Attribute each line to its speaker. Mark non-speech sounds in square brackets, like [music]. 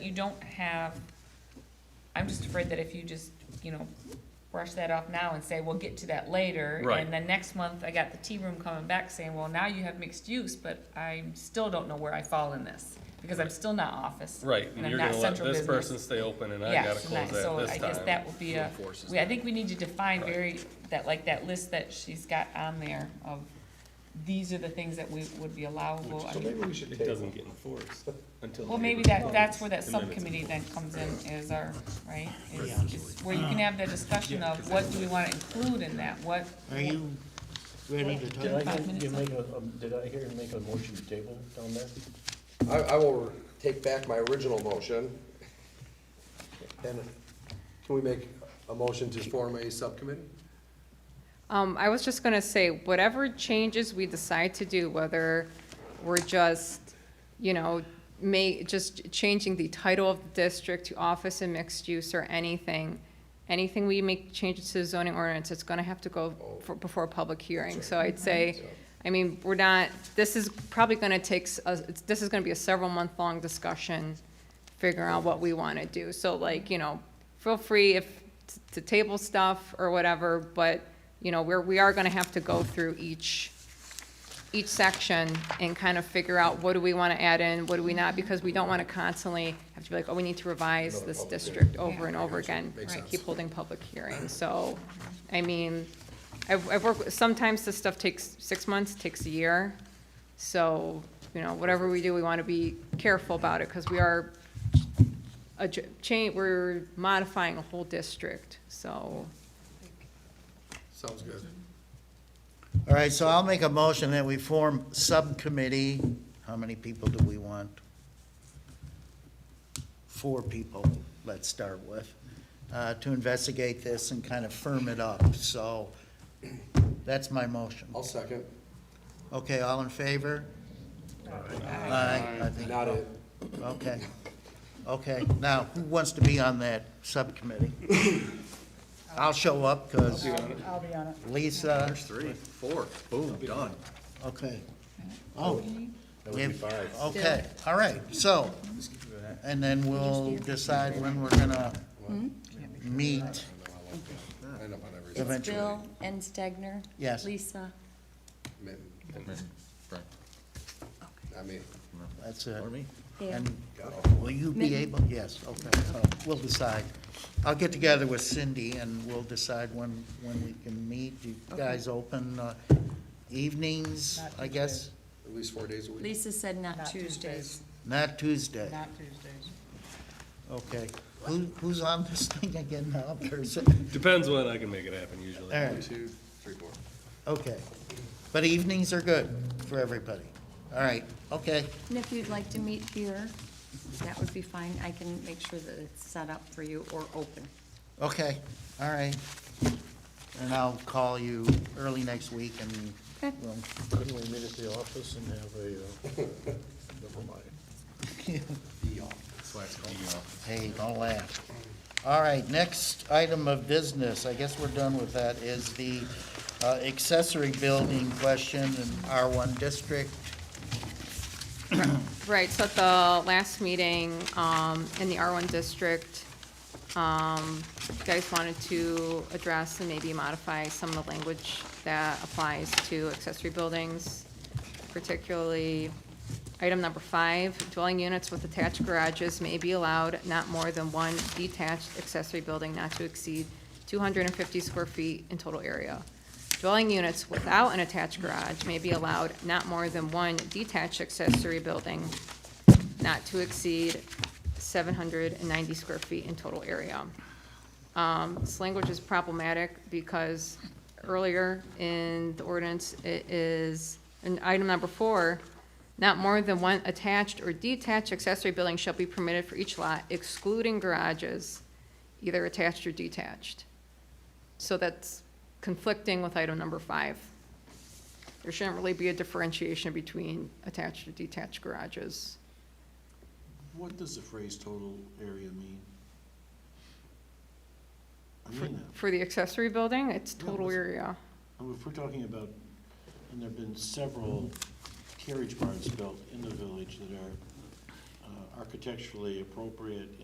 Speaker 1: you don't have, I'm just afraid that if you just, you know, brush that off now and say, we'll get to that later.
Speaker 2: Right.
Speaker 1: And then next month, I got the tea room coming back saying, well, now you have mixed use, but I still don't know where I fall in this. Because I'm still not office.
Speaker 2: Right,
Speaker 1: And
Speaker 2: and
Speaker 1: I'm
Speaker 2: you're
Speaker 1: not
Speaker 2: gonna let
Speaker 1: central
Speaker 2: this
Speaker 1: business.
Speaker 2: person stay open and I
Speaker 1: Yeah,
Speaker 2: gotta
Speaker 1: so
Speaker 2: close
Speaker 1: that- so I
Speaker 2: that
Speaker 1: guess
Speaker 2: this time.
Speaker 1: that will be a,
Speaker 3: Enforces
Speaker 1: we, I think we need to define
Speaker 2: Right.
Speaker 1: very, that, like, that list that she's got on there of, these are the things that we, would be allowable. I
Speaker 4: So
Speaker 1: mean,
Speaker 4: maybe we should
Speaker 2: It doesn't
Speaker 4: table.
Speaker 2: get enforced until.
Speaker 1: Well,
Speaker 2: the
Speaker 1: maybe
Speaker 2: neighbor
Speaker 1: that,
Speaker 2: complains,
Speaker 1: that's where that
Speaker 2: and then it's
Speaker 1: subcommittee then comes in, is our, right? Is-
Speaker 5: Yeah.
Speaker 1: is Where you can have the discussion of what do we wanna include in that, what,
Speaker 5: Are you ready to
Speaker 6: Did
Speaker 5: talk?
Speaker 6: I
Speaker 1: Five
Speaker 6: hear
Speaker 1: minutes
Speaker 6: you make a, um, did I hear you make a motion to table down there?
Speaker 4: I, I will take back my original motion. And can we make a motion to form a subcommittee?
Speaker 7: Um, I was just gonna say, whatever changes we decide to do, whether we're just, you know, may, just changing the title of the district to office and mixed use or anything, anything we make changes to the zoning ordinance, it's gonna have to go for, before a public hearing. So I'd say, I mean, we're not, this is probably gonna take, s- a- it's- this is gonna be a several-month-long discussion, figuring out what we wanna do. So like, you know, feel free if, to table stuff or whatever, but, you know, we're, we are gonna have to go through each, each section and kind of figure out what do we wanna add in, what do we not, because we don't wanna constantly have to be like, oh, we need to revise this district over and over again.
Speaker 4: Makes
Speaker 7: Right,
Speaker 4: sense.
Speaker 7: Keep holding public hearings, so, I mean, I've, I've worked, with- sometimes this stuff takes six months, takes a year. So, you know, whatever we do, we wanna be careful about it, cause we are a ch- change, we're modifying a whole district, so.
Speaker 4: Sounds good.
Speaker 5: All right, so I'll make a motion that we form subcommittee. How many people do we want? Four people, let's start with, uh, to investigate this and kind of firm it up. So that's my motion.
Speaker 4: I'll second.
Speaker 5: Okay, all in favor? Aye. I think-
Speaker 4: Not it.
Speaker 5: Okay, okay. Now, who wants to be on that subcommittee? I'll show up, because
Speaker 8: I'll be on it.
Speaker 5: Lisa,
Speaker 3: Three, four, boom, done.
Speaker 5: okay. Oh,
Speaker 6: That would be
Speaker 5: If-
Speaker 6: five.
Speaker 5: okay, all right, so, and then we'll decide when we're gonna
Speaker 8: Hmm?
Speaker 5: meet
Speaker 4: I end up on every.
Speaker 5: Eventually.
Speaker 8: Bill and Stegner?
Speaker 5: Yes.
Speaker 8: Lisa?
Speaker 4: I mean,
Speaker 5: That's it.
Speaker 3: Or me.
Speaker 8: Yeah.
Speaker 5: And will you be able, yes, okay, so we'll decide. I'll get together with Cindy and we'll decide when, when we can meet. You guys open uh, evenings,
Speaker 8: Not
Speaker 5: I guess?
Speaker 4: at least four days a week.
Speaker 8: Lisa said not
Speaker 9: Not
Speaker 8: Tuesdays.
Speaker 5: Not Tuesday,
Speaker 9: Not Tuesdays.
Speaker 5: okay. Who, who's on this thing again now, [laughs] person?
Speaker 2: Depends when I can make it happen usually.
Speaker 5: All
Speaker 4: One,
Speaker 5: right,
Speaker 4: two, three, four.
Speaker 5: okay. But evenings are good for everybody. All right, okay,
Speaker 8: And if you'd like to meet here, that would be fine. I can make sure that it's set up for you or open.
Speaker 5: okay, all right. And I'll call you early next week and
Speaker 8: Okay.
Speaker 5: we'll
Speaker 6: Couldn't we meet at the office and have a, uh, [laughs] never mind.
Speaker 3: That's why it's called the office.
Speaker 5: Hey, don't laugh. All right, next item of business, I guess we're done with that, is the uh, accessory building question in R1 district.
Speaker 7: Right, so at the last meeting, um, in the R one district, um, you guys wanted to address and maybe modify some of the language that applies to accessory buildings, particularly item number five, dwelling units with attached garages may be allowed not more than one detached accessory building not to exceed two hundred and fifty square feet in total area. Dwelling units without an attached garage may be allowed not more than one detached accessory building not to exceed seven hundred and ninety square feet in total area. Um, this language is problematic because earlier in the ordinance, it is, in item number four, not more than one attached or detached accessory building shall be permitted for each lot excluding garages, either attached or detached. So that's conflicting with item number five. There shouldn't really be a differentiation between attached or detached garages.
Speaker 6: What does the phrase total area mean? I mean that.
Speaker 7: For the accessory building, it's
Speaker 6: Yeah,
Speaker 7: total
Speaker 6: that's-
Speaker 7: area.
Speaker 6: I mean, If we're talking about, and there've been several carriage barns built in the village that are, uh, architecturally appropriate